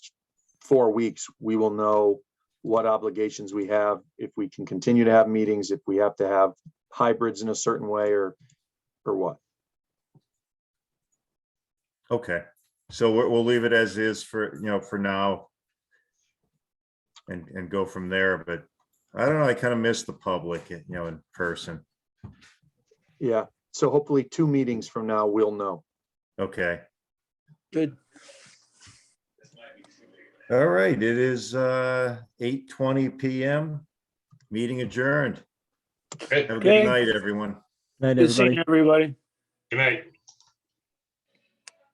four weeks, we will know what obligations we have, if we can continue to have meetings, if we have to have hybrids in a certain way or, or what. Okay, so we'll, we'll leave it as is for, you know, for now. And, and go from there, but I don't know, I kind of miss the public, you know, in person. Yeah, so hopefully two meetings from now, we'll know. Okay, Good. all right, it is uh eight twenty PM. Meeting adjourned. Have a Okay. good night, everyone. Night, Good seeing everybody. everybody. Good night.